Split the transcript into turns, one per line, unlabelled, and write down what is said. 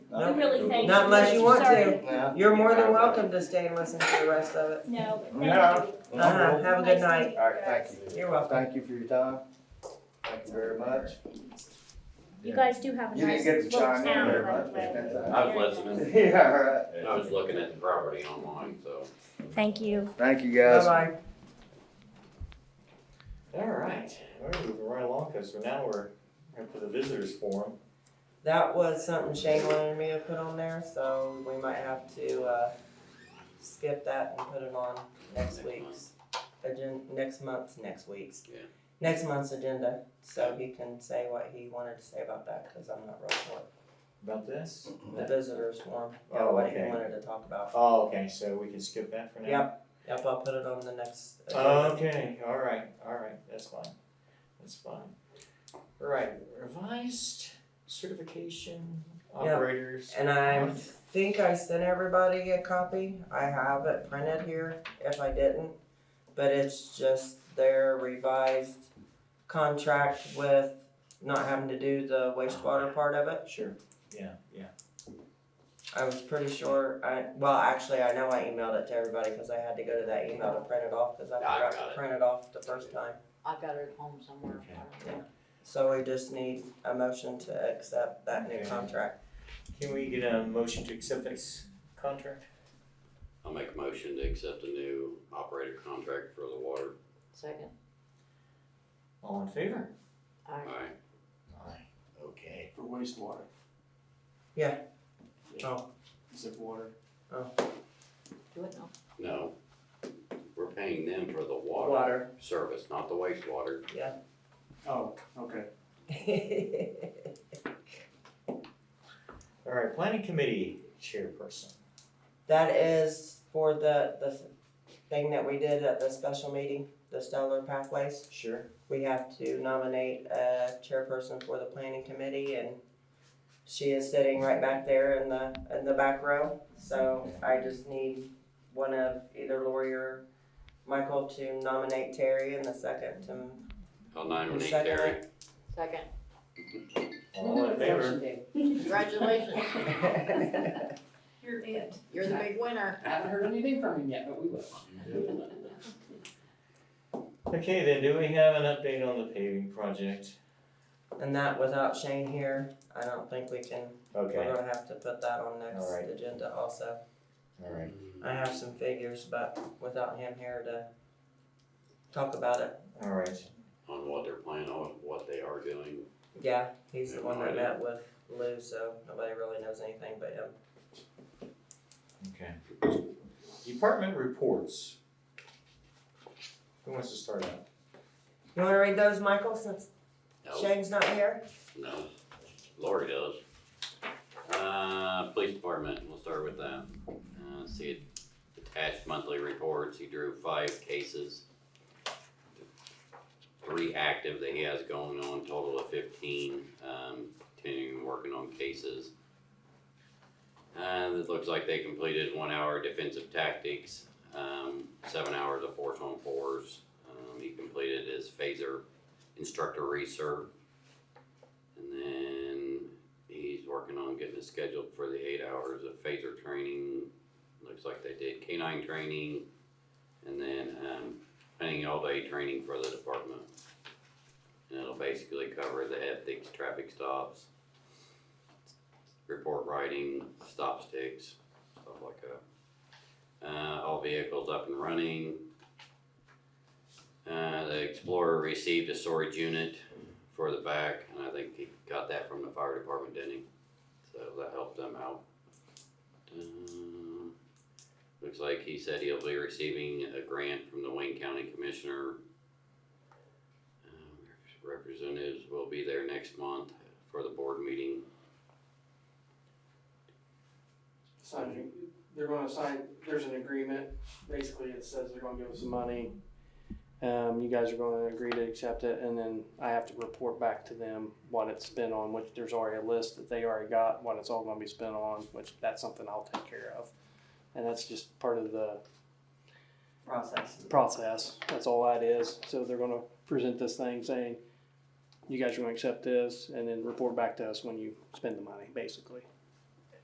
We really thank you.
Not unless you want
Sorry.
to. You're more than welcome to stay and listen to the rest of it.
No, but
Yeah.
thank you.
Uh-huh, have a good
Nice to
night.
meet
All right,
guys.
thank you.
You're welcome.
Thank you for your time. Thank you very much.
You guys do have a
You
nice
didn't get to
little
chime in
town,
very
by the
much,
way.
but that's all
I was listening,
Yeah, all right.
I was looking at the property online, so.
Thank you.
Thank you, guys.
Bye-bye.
All right, all right, moving right along, cause so now we're up to the visitors forum.
That was something Shane wanted me to put on there, so we might have to, uh, skip that and put it on next
Next
week's agenda, next month's, next week's.
Yeah.
Next month's agenda, so he can say what he wanted to say about that, cause I'm not real sure.
About this?
The visitors form, yeah,
Oh,
what he
okay.
wanted to talk about.
Oh, okay, so we can skip that for now?
Yep. Yep, I'll put it on the next
Um,
agenda.
Okay, all right, all right, that's fine, that's fine. All right, revised certification operators.
And I think I sent everybody a copy. I have it printed here if I didn't. But it's just their revised contract with not having to do the wastewater part of it.
Sure, yeah, yeah,
I was pretty sure, I, well, actually, I know I emailed it to everybody because I had to go to that email to print it off because I
Yeah, I
forgot
got
to
it.
print it off the first time.
I've got it at home somewhere. I don't know.
So we just need a motion to accept that new
Okay.
contract.
can we get a motion to accept this contract?
I'll make a motion to accept a new operator contract for the water.
Second,
All in favor?
I,
Alright,
Aye. Okay.
For wastewater.
Yeah.
Oh. Except water.
do it now.
no, we're paying them for the water
Water.
service, not the wastewater.
Oh, okay.
All right, planning committee chairperson.
That is for the, the thing that we did at the special meeting, the stellar pathways.
Sure.
We have to nominate a chairperson for the planning committee and she is sitting right back there in the, in the back row. So I just need one of either Lori or Michael to nominate Terry and the second to
I'll nominate
Second.
Terry.
Second,
All in favor?
congratulations,
You're it.
you're the big winner.
I haven't heard anything from him yet, but we will.
Okay, then do we have an update on the paving project?
And that without Shane here, I don't think we can, we're
Okay,
gonna have to put that on next
Alright.
agenda also.
all right.
I have some figures, but without him here to talk about it.
All right.
On what they're planning, on what they are doing.
Yeah, he's the one that met with Lou, so nobody really knows anything but him.
Okay. Department reports. Who wants to start out?
You wanna read those, Michael, since
No,
Shane's not here?
no, Lori does. Uh, police department, we'll start with that. Uh, see, attached monthly reports, he drew five cases. Three active that he has going on, total of fifteen, um, continuing working on cases. And it looks like they completed one hour defensive tactics, um, seven hours of force on fours. Um, he completed his phaser instructor recert. And then he's working on getting it scheduled for the eight hours of phaser training. Looks like they did canine training and then um, planning all day training for the department. And it'll basically cover the ethics, traffic stops, report writing, stop sticks, stuff like that. Uh, all vehicles up and running. Uh, the Explorer received a storage unit for the back, and I think he got that from the fire department, didn't he? So that helped them out. Uh, Looks like he said he'll be receiving a grant from the Wayne County Commissioner. Um, Representatives will be there next month for the board meeting.
Sign, they're gonna sign, there's an agreement, basically it says they're gonna give us some money. Um, you guys are gonna agree to accept it, and then I have to report back to them what it's spent on, which there's already a list that they already got, what it's all gonna be spent on, which that's something I'll take care of. And that's just part of the
Process.
process. That's all that is. So they're gonna present this thing saying, you guys are gonna accept this and then report back to us when you spend the money, basically.